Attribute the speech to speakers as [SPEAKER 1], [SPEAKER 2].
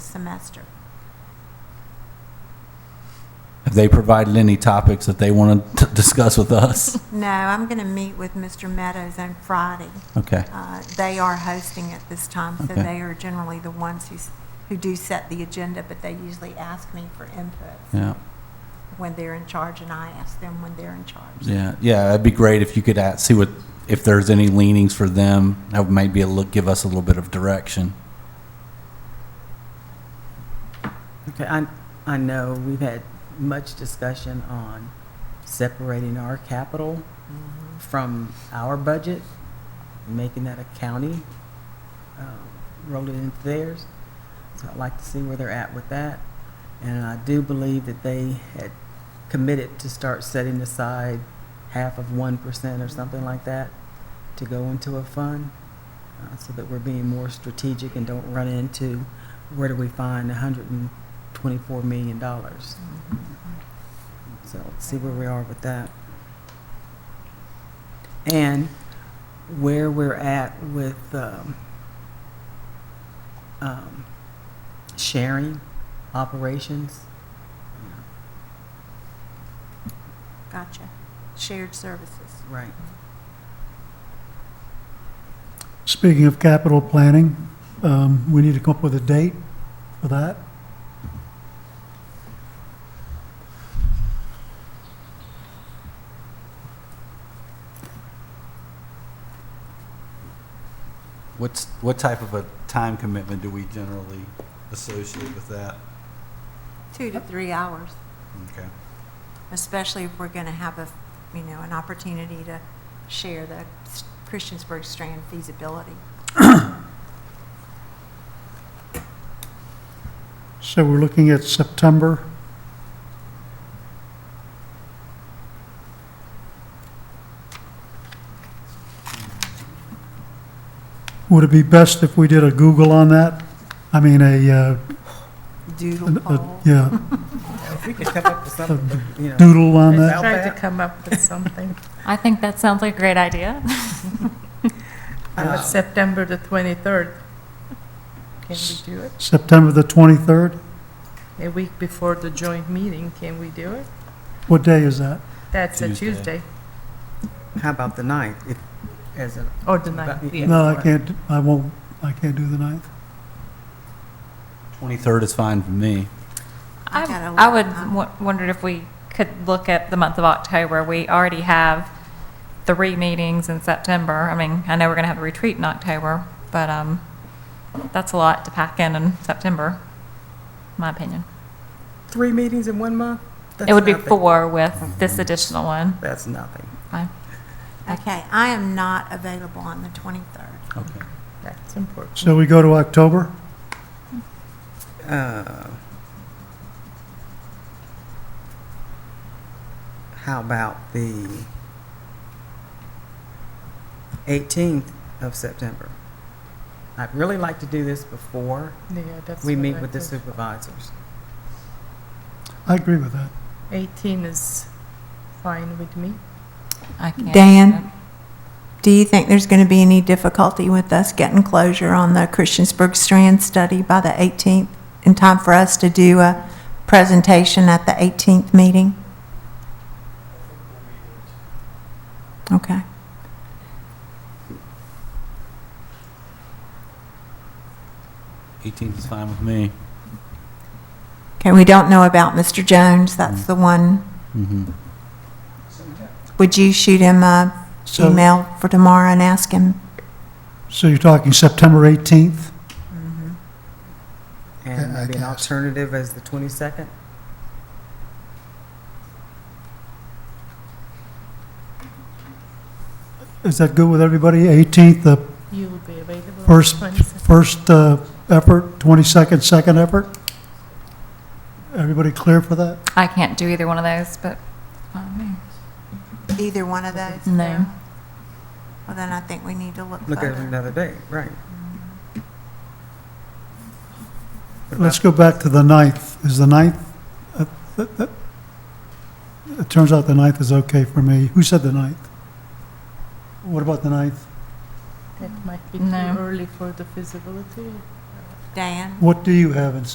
[SPEAKER 1] semester.
[SPEAKER 2] Have they provided any topics that they want to discuss with us?
[SPEAKER 1] No, I'm going to meet with Mr. Meadows on Friday.
[SPEAKER 2] Okay,
[SPEAKER 1] Uh, They are hosting at this time, so
[SPEAKER 2] Okay.
[SPEAKER 1] they are generally the ones who, s- who do set the agenda, but they usually ask me for input
[SPEAKER 2] yeah,
[SPEAKER 1] when they're in charge, and I ask them when they're in charge.
[SPEAKER 2] yeah, yeah, that'd be great if you could at- see what, if there's any leanings for them, that would maybe a look, give us a little bit of direction.
[SPEAKER 3] Okay, I, I know we've had much discussion on separating our capital from our budget, making that a county, um, roll it into theirs. So I'd like to see where they're at with that. And I do believe that they had committed to start setting aside half of one percent or something like that to go into a fund, uh, so that we're being more strategic and don't run into where do we find hundred and twenty-four million dollars?
[SPEAKER 1] Mm-hmm.
[SPEAKER 3] So let's see where we are with that. And where we're at with um, um, sharing operations.
[SPEAKER 1] Gotcha. Shared services.
[SPEAKER 3] Right.
[SPEAKER 4] Speaking of capital planning, um, we need to come up with a date for that.
[SPEAKER 2] What's, what type of a time commitment do we generally associate with that?
[SPEAKER 1] Two to three hours,
[SPEAKER 2] Okay.
[SPEAKER 1] especially if we're going to have a, you know, an opportunity to share the s- Christiansburg Strand feasibility.
[SPEAKER 4] So we're looking at September. Would it be best if we did a Google on that? I mean, a, uh,
[SPEAKER 1] Doodle
[SPEAKER 4] an-
[SPEAKER 1] poll.
[SPEAKER 4] a- yeah,
[SPEAKER 3] If we could come up with something, you know.
[SPEAKER 4] doodle on that?
[SPEAKER 3] How
[SPEAKER 5] Tried to
[SPEAKER 3] bad?
[SPEAKER 5] come up with something.
[SPEAKER 6] I think that sounds like a great idea.
[SPEAKER 5] Uh,
[SPEAKER 3] Uh,
[SPEAKER 5] September the 23rd. Can we do it?
[SPEAKER 4] September the 23rd?
[SPEAKER 5] A week before the joint meeting, can we do it?
[SPEAKER 4] What day is that?
[SPEAKER 5] That's a
[SPEAKER 2] Tuesday.
[SPEAKER 5] Tuesday
[SPEAKER 3] How about the ninth? If, as a,
[SPEAKER 5] or the 9th. yeah.
[SPEAKER 4] No, I can't, I won't, I can't do the ninth.
[SPEAKER 2] 23rd is fine for me.
[SPEAKER 1] I gotta
[SPEAKER 6] I, I
[SPEAKER 1] look.
[SPEAKER 6] would w- wondered if we could look at the month of October. We already have three meetings in September. I mean, I know we're going to have a retreat in October, but um, that's a lot to pack in in September, in my opinion.
[SPEAKER 3] three meetings in one month?
[SPEAKER 6] it
[SPEAKER 3] That's
[SPEAKER 6] would be
[SPEAKER 3] nothing.
[SPEAKER 6] four with this additional one.
[SPEAKER 3] That's nothing.
[SPEAKER 6] I,
[SPEAKER 1] Okay, I am not available on the 23rd.
[SPEAKER 2] Okay.
[SPEAKER 5] That's important.
[SPEAKER 4] So we go to October?
[SPEAKER 3] Uh, How about the 18th of September? I'd really like to do this before
[SPEAKER 5] Yeah, that's
[SPEAKER 3] we
[SPEAKER 5] what
[SPEAKER 3] meet
[SPEAKER 5] I
[SPEAKER 3] with the
[SPEAKER 5] thought.
[SPEAKER 3] supervisors.
[SPEAKER 4] I agree with that.
[SPEAKER 5] 18 is fine with me.
[SPEAKER 6] I can't.
[SPEAKER 1] Dan? Do you think there's going to be any difficulty with us getting closure on the Christiansburg Strand study by the 18th in time for us to do a presentation at the 18th meeting? Okay.
[SPEAKER 2] Eighteenth is fine with me.
[SPEAKER 1] Okay, we don't know about Mr. Jones, that's the one.
[SPEAKER 2] Mm-hmm.
[SPEAKER 1] Would you shoot him a
[SPEAKER 4] So-
[SPEAKER 1] email for tomorrow and ask him?
[SPEAKER 4] So you're talking September 18th?
[SPEAKER 3] And
[SPEAKER 4] Yeah, I
[SPEAKER 3] maybe an
[SPEAKER 4] guess.
[SPEAKER 3] alternative as the 22nd?
[SPEAKER 4] Is that good with everybody? 18th, the
[SPEAKER 5] You will be available on the
[SPEAKER 4] first,
[SPEAKER 5] 22nd.
[SPEAKER 4] first uh, effort, 22nd, second effort? Everybody clear for that?
[SPEAKER 6] I can't do either one of those, but um,
[SPEAKER 1] Either one of those?
[SPEAKER 6] no.
[SPEAKER 1] Well, then I think we need to look
[SPEAKER 3] Look at
[SPEAKER 1] further.
[SPEAKER 3] another day, right? What
[SPEAKER 4] Let's go back to the 9th. Is the 9th, uh, th- th- it turns out the 9th is okay for me. Who said the 9th? What about the 9th?
[SPEAKER 5] That might be too
[SPEAKER 6] No.
[SPEAKER 5] early for the feasibility.
[SPEAKER 1] Dan?
[SPEAKER 4] What do you have in